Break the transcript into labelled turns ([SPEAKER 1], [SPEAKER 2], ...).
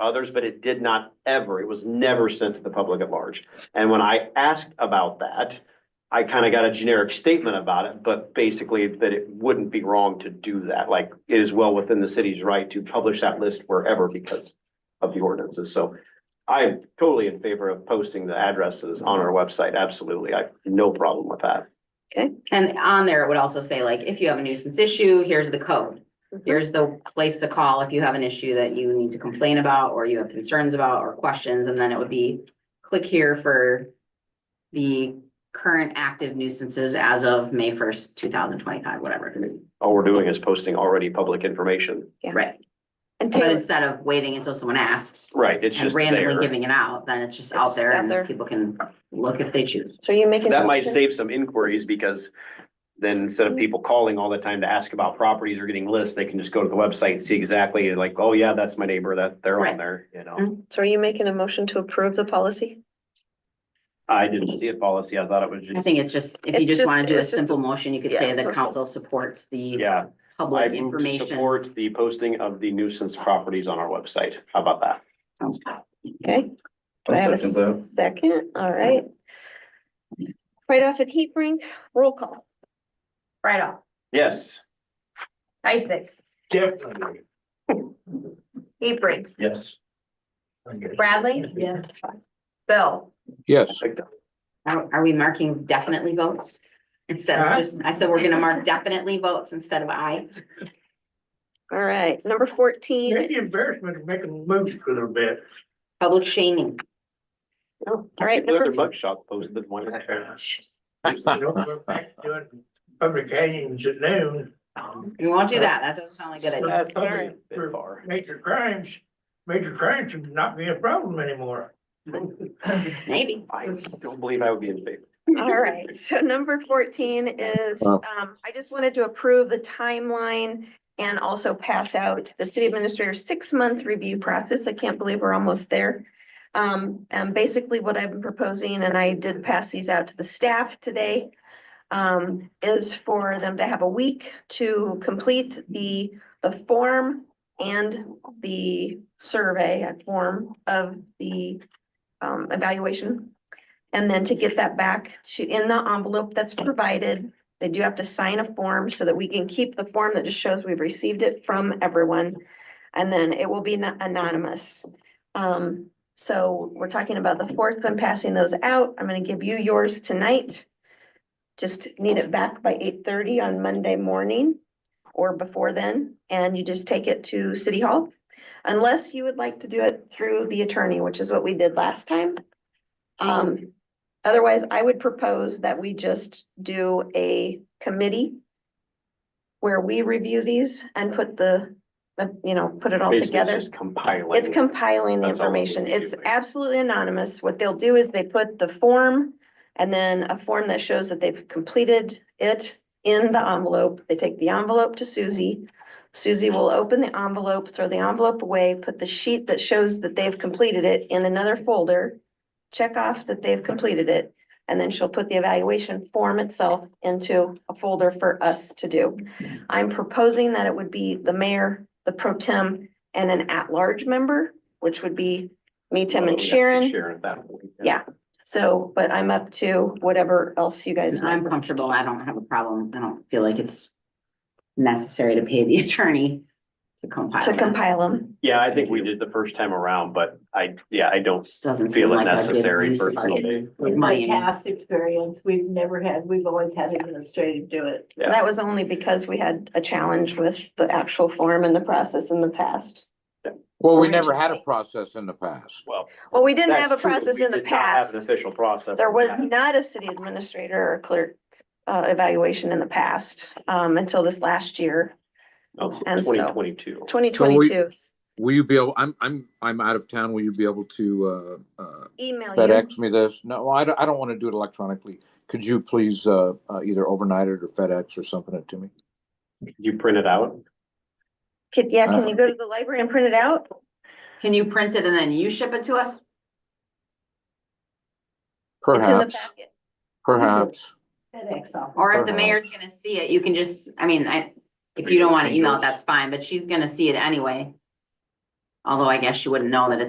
[SPEAKER 1] others, but it did not ever, it was never sent to the public at large. And when I asked about that, I kind of got a generic statement about it, but basically that it wouldn't be wrong to do that. Like it is well within the city's right to publish that list wherever because of the ordinances. So I'm totally in favor of posting the addresses on our website. Absolutely. I, no problem with that.
[SPEAKER 2] Okay, and on there, it would also say like, if you have a nuisance issue, here's the code.
[SPEAKER 3] Mm-hmm.
[SPEAKER 2] Here's the place to call if you have an issue that you need to complain about, or you have concerns about, or questions, and then it would be click here for the current active nuisances as of May first, two thousand twenty-five, whatever.
[SPEAKER 1] All we're doing is posting already public information.
[SPEAKER 3] Yeah.
[SPEAKER 2] Right,
[SPEAKER 3] And
[SPEAKER 2] but
[SPEAKER 3] Taylor,
[SPEAKER 2] instead of waiting until someone asks
[SPEAKER 1] Right, it's
[SPEAKER 2] and
[SPEAKER 1] just
[SPEAKER 2] randomly
[SPEAKER 1] there.
[SPEAKER 2] giving it out, then it's just
[SPEAKER 3] It's
[SPEAKER 2] out
[SPEAKER 3] just
[SPEAKER 2] there
[SPEAKER 3] out
[SPEAKER 2] and
[SPEAKER 3] there.
[SPEAKER 2] people can look if they choose.
[SPEAKER 3] so you making?
[SPEAKER 1] That might save some inquiries because then instead of people calling all the time to ask about properties or getting lists, they can just go to the website and see exactly like, oh yeah, that's my neighbor, that they're on
[SPEAKER 2] Right.
[SPEAKER 1] there, you know?
[SPEAKER 2] Mhm.
[SPEAKER 3] So are you making a motion to approve the policy?
[SPEAKER 1] I didn't see a policy. I thought it was
[SPEAKER 2] I
[SPEAKER 1] just,
[SPEAKER 2] think it's just, if you
[SPEAKER 3] It's
[SPEAKER 2] just
[SPEAKER 3] just-
[SPEAKER 2] wanna do a
[SPEAKER 3] it's just-
[SPEAKER 2] simple motion, you could
[SPEAKER 3] yeah,
[SPEAKER 2] say the
[SPEAKER 3] perfect.
[SPEAKER 2] council supports the
[SPEAKER 1] yeah. I
[SPEAKER 2] public
[SPEAKER 1] move to
[SPEAKER 2] information.
[SPEAKER 1] support the posting of the nuisance properties on our website. How about that?
[SPEAKER 2] Sounds good.
[SPEAKER 3] Okay. Do I have a second? All right. Right off at Heat Brink, roll call.
[SPEAKER 4] Right off.
[SPEAKER 1] Yes.
[SPEAKER 4] Isaac,
[SPEAKER 5] Definitely,
[SPEAKER 4] Hebring,
[SPEAKER 5] yes.
[SPEAKER 4] Bradley. Yes. Bill,
[SPEAKER 6] Yes,
[SPEAKER 2] Are, are we marking definitely votes? Instead of
[SPEAKER 5] Huh?
[SPEAKER 2] just, I said we're gonna mark definitely votes instead of I.
[SPEAKER 3] All right, number fourteen.
[SPEAKER 5] Maybe embarrassment to make them move for a little bit.
[SPEAKER 2] Public shaming.
[SPEAKER 3] All right,
[SPEAKER 1] Another
[SPEAKER 3] number,
[SPEAKER 1] mug shot posted one.
[SPEAKER 5] Uh, You know, we're back to doing Public hangings at noon.
[SPEAKER 2] We won't do that. That doesn't sound like a good idea.
[SPEAKER 5] That's probably
[SPEAKER 3] Alright.
[SPEAKER 5] for Major crimes, major crimes would not be a problem anymore.
[SPEAKER 2] Maybe.
[SPEAKER 1] I don't believe I would be in favor.
[SPEAKER 3] all right, so number fourteen is,
[SPEAKER 6] Wow.
[SPEAKER 3] um, I just wanted to approve the timeline and also pass out the city administrator's six-month review process. I can't believe we're almost there. Um, and basically what I've been proposing, and I did pass these out to the staff today, um, is for them to have a week to complete the, the form and the survey uh, form of the, um, evaluation. And then to get that back to, in the envelope that's provided, they do have to sign a form so that we can keep the form that just shows we've received it from everyone. And then it will be no- anonymous. Um, so we're talking about the fourth one, passing those out. I'm gonna give you yours tonight. Just need it back by eight thirty on Monday morning or before then, and you just take it to City Hall. Unless you would like to do it through the attorney, which is what we did last time. Um, otherwise, I would propose that we just do a committee where we review these and put the, the, you know, put it all
[SPEAKER 1] Basically, it's
[SPEAKER 3] together.
[SPEAKER 1] just Compiling.
[SPEAKER 3] It's compiling the
[SPEAKER 1] That's all we
[SPEAKER 3] information.
[SPEAKER 1] need to
[SPEAKER 3] It's
[SPEAKER 1] do.
[SPEAKER 3] absolutely anonymous. What they'll do is they put the form and then a form that shows that they've completed it in the envelope. They take the envelope to Susie. Susie will open the envelope, throw the envelope away, put the sheet that shows that they've completed it in another folder, check off that they've completed it, and then she'll put the evaluation form itself into a folder for us to do. I'm proposing that it would be the mayor, the pro tem, and an at-large member, which would be me, Tim,
[SPEAKER 1] Well, we'd have
[SPEAKER 3] and
[SPEAKER 1] to be
[SPEAKER 3] Sharon.
[SPEAKER 1] Sharon at that point.
[SPEAKER 3] Yeah. So, but I'm up to whatever else you guys. want.
[SPEAKER 2] I'm comfortable. I don't have a problem. I don't feel like it's necessary to pay the attorney to compile.
[SPEAKER 3] To
[SPEAKER 2] that.
[SPEAKER 3] compile them.
[SPEAKER 1] Yeah, I think we did the first time around, but I, yeah, I don't
[SPEAKER 2] Just doesn't seem
[SPEAKER 1] feel it
[SPEAKER 2] like a good
[SPEAKER 1] necessary
[SPEAKER 2] use of our
[SPEAKER 1] personally.
[SPEAKER 2] money.
[SPEAKER 7] My past experience, we've never had, we've always had administrative do it.
[SPEAKER 1] Yeah.
[SPEAKER 3] That was only because we had a challenge with the actual form and the process in the past.
[SPEAKER 6] well, we
[SPEAKER 3] Or
[SPEAKER 6] never had a
[SPEAKER 3] actually-
[SPEAKER 6] process in the past.
[SPEAKER 1] Well.
[SPEAKER 3] Well, we didn't
[SPEAKER 1] that's
[SPEAKER 3] have a
[SPEAKER 1] true, but
[SPEAKER 3] process
[SPEAKER 1] we
[SPEAKER 3] in the
[SPEAKER 1] did not have
[SPEAKER 3] past.
[SPEAKER 1] An official process.
[SPEAKER 3] There was not a city administrator or clerk uh evaluation in the past, um, until this last year, and so-
[SPEAKER 1] Twenty twenty-two.
[SPEAKER 3] twenty twenty-two.
[SPEAKER 6] Will you be able, I'm, I'm, I'm out of town. Will you be able to, uh, uh,
[SPEAKER 3] Email you.
[SPEAKER 6] FedEx me this? No, I don't, I don't want to do it electronically. Could you please, uh, uh, either overnight it or FedEx or something it to me?
[SPEAKER 1] You print it out?
[SPEAKER 3] Could, yeah, can
[SPEAKER 6] Uh,
[SPEAKER 3] you go to the library and print it out?
[SPEAKER 2] Can you print it and then you ship it to us?
[SPEAKER 3] It's in the
[SPEAKER 6] Perhaps,
[SPEAKER 3] packet.
[SPEAKER 6] perhaps.
[SPEAKER 7] FedEx office.
[SPEAKER 2] Or if the
[SPEAKER 6] Perhaps.
[SPEAKER 2] mayor's gonna see it, you can just, I mean, I, if you don't wanna email it, that's fine, but she's gonna see it anyway. Although I guess you wouldn't know that it's